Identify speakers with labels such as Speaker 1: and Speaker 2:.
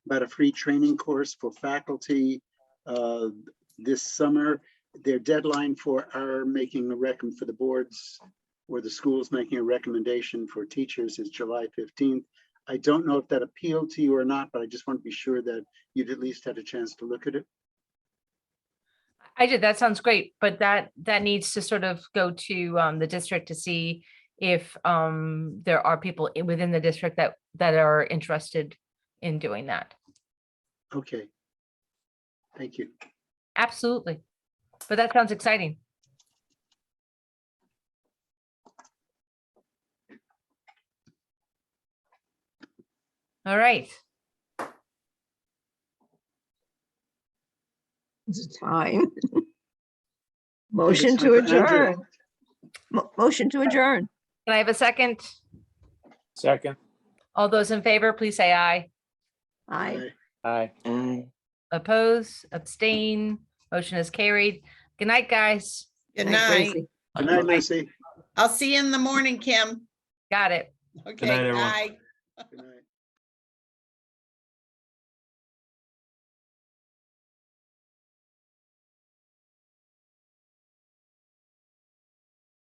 Speaker 1: about a free training course for faculty uh, this summer. Their deadline for our making a recommend for the boards or the schools making a recommendation for teachers is July fifteenth. I don't know if that appealed to you or not, but I just want to be sure that you'd at least had a chance to look at it.
Speaker 2: I did, that sounds great, but that, that needs to sort of go to um, the district to see if um, there are people i- within the district that, that are interested in doing that.
Speaker 1: Okay. Thank you.
Speaker 2: Absolutely. But that sounds exciting. All right,
Speaker 3: It's time.
Speaker 1: time
Speaker 3: Motion to
Speaker 1: for Andrew.
Speaker 3: adjourn. Mo- Motion to adjourn.
Speaker 2: can I have a second?
Speaker 4: Second.
Speaker 2: All those in favor, please say aye.
Speaker 3: Aye.
Speaker 4: Aye.
Speaker 2: Oppose, abstain, motion is carried. Good night, guys.
Speaker 5: Good
Speaker 3: Thanks,
Speaker 5: night.
Speaker 3: Lacey.
Speaker 1: Good night, Lucy.
Speaker 5: I'll see you in the morning, Kim.
Speaker 2: Got it.
Speaker 5: Okay,
Speaker 4: everyone.
Speaker 5: bye.
Speaker 1: Good night.